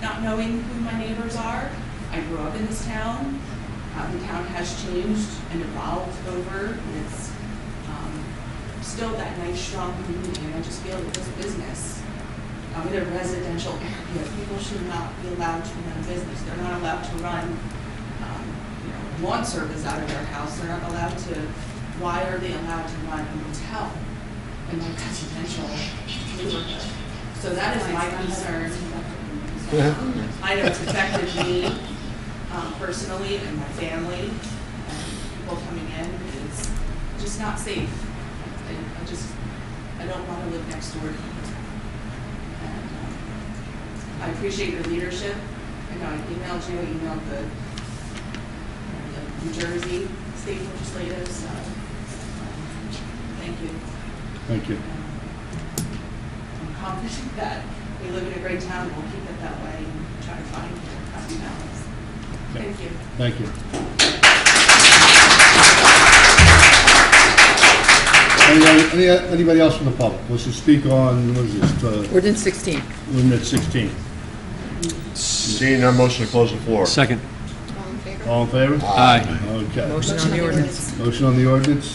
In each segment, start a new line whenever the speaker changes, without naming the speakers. not knowing who my neighbors are. I grew up in this town. Uh, The town has changed and evolved over, and it's um, still that nice, strong community, and I just feel that this business, um, in a residential area, people should not be allowed to run a business. They're not allowed to run um, you know, lawn service out of their house, they're not allowed to, why are they allowed to run a motel in my residential neighborhood? So that is my concern. I know it's affected me um, personally and my family, and people coming in, it's just not safe. I- I just, I don't want to live next door to you. And, um, I appreciate your leadership. I know I emailed you, I emailed the the New Jersey state legislators, so, um, thank you.
Thank you.
I'm confident that we live in a great town, we'll keep it that way and try to find a happy balance. Thank you.
Thank you. Anybody- any- Anybody else from the public wants to speak on, what is this, uh,
Ordinance 16.
ordinance 16?
Seeing none, motion to close the floor.
Second.
All in favor?
Aye.
Okay.
Motion on the ordinance.
Motion on the ordinance?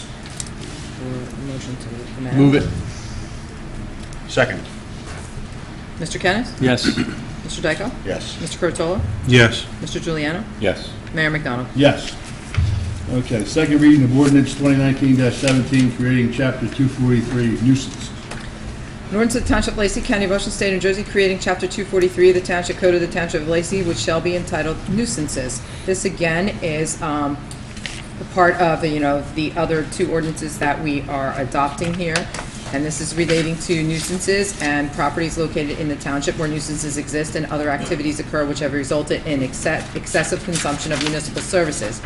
Or motion to the matter.
Move it.
Second,
Mr. Kennis?
Yes.
Mr. Dykoff?
yes.
Mr. Curatolo?
Yes.
Mr. Juliano?
Yes.
Mayor McDonald?
Yes. Okay, second reading of ordinance 2019-17, creating Chapter 243 nuisance.
An ordinance of the Township of Lacey County, of Ocean State, New Jersey, creating Chapter 243 of the Township Code of the Township of Lacey, which shall be entitled nuisances. This again is um, a part of, you know, the other two ordinances that we are adopting here. And this is relating to nuisances and properties located in the township where nuisances exist and other activities occur which have resulted in exce- excessive consumption of municipal services.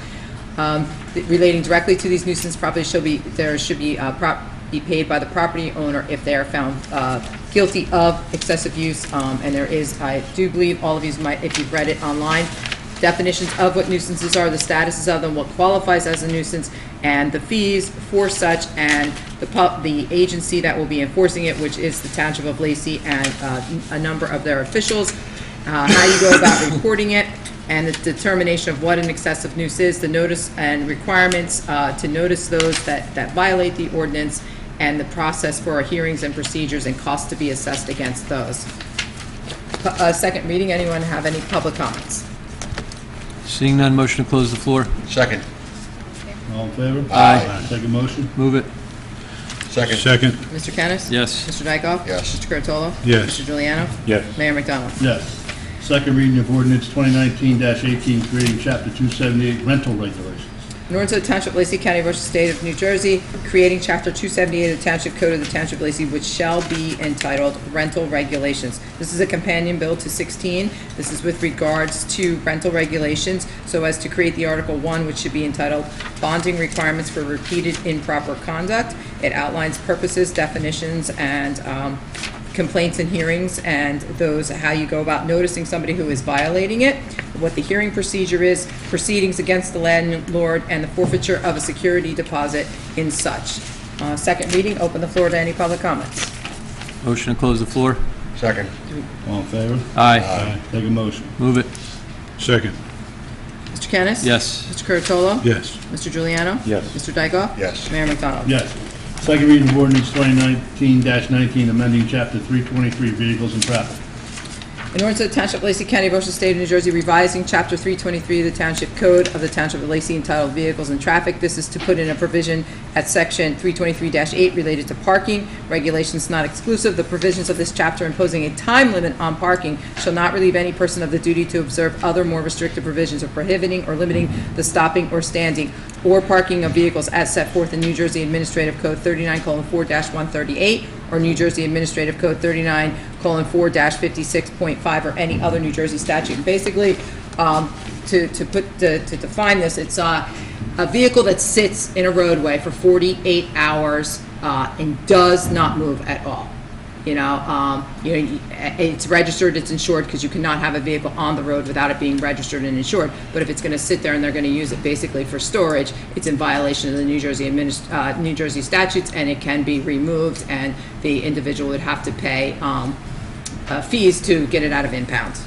Um, th- Relating directly to these nuisance properties shall be, there should be, uh, prop, be paid by the property owner if they are found uh, guilty of excessive use. Um, And there is, I do believe, all of you might, if you've read it online, definitions of what nuisances are, the statuses of them, what qualifies as a nuisance, and the fees for such, and the pub, the agency that will be enforcing it, which is the Township of Lacey, and uh, a number of their officials, uh, how you go about reporting it, and the determination of what an excessive nuisance is, the notice and requirements uh, to notice those that, that violate the ordinance, and the process for our hearings and procedures and costs to be assessed against those. Pu- uh, Second reading, anyone have any public comments?
Seeing none, motion to close the floor.
Second,
All in favor?
Aye.
Second motion?
Move it.
second,
Mr. Kennis?
Yes.
Mr. Dykoff?
Yes.
Mr. Curatolo?
Yes.
Mr. Juliano?
Yes.
Mayor McDonald?
Yes. Second reading of ordinance 2019-18, creating Chapter 278 rental regulations.
In order to the Township of Lacey County, Ocean State of New Jersey, creating Chapter 278 of the Township Code of the Township of Lacey, which shall be entitled Rental Regulations. This is a companion bill to 16. This is with regards to rental regulations, so as to create the Article 1, which should be entitled Bonding Requirements for Repeated Improper Conduct. It outlines purposes, definitions, and um, complaints and hearings, and those, how you go about noticing somebody who is violating it, what the hearing procedure is, proceedings against the landlord, and the forfeiture of a security deposit in such. Uh, Second reading, open the floor to any public comments.
Motion to close the floor.
second,
All in favor?
Aye.
Aye. Take a motion.
Move it.
Second.
Mr. Kennis?
Yes.
Mr. Curatolo?
Yes.
Mr. Juliano?
Yes.
Mr. Dykoff?
Yes.
Mayor McDonald?
Yes. Second reading of ordinance 2019-19, amending Chapter 323 vehicles and traffic.
In order to the Township of Lacey County, Ocean State of New Jersey, revising Chapter 323 of the Township Code of the Township of Lacey entitled Vehicles and Traffic. This is to put in a provision at Section 323-8 related to parking. Regulations not exclusive. The provisions of this chapter imposing a time limit on parking shall not relieve any person of the duty to observe other more restrictive provisions of prohibiting or limiting the stopping or standing or parking of vehicles as set forth in New Jersey Administrative Code 39:4-138 or New Jersey Administrative Code 39:4-56.5 or any other New Jersey statute. Basically, um, to to put, to to define this, it's uh, a vehicle that sits in a roadway for 48 hours uh, and does not move at all. You know, um, you know, you- it's registered, it's insured, because you cannot have a vehicle on the road without it being registered and insured. But if it's going to sit there and they're going to use it basically for storage, it's in violation of the New Jersey adminis, uh, New Jersey statutes, and it can be removed, and the individual would have to pay, um, uh, fees to get it out of impound.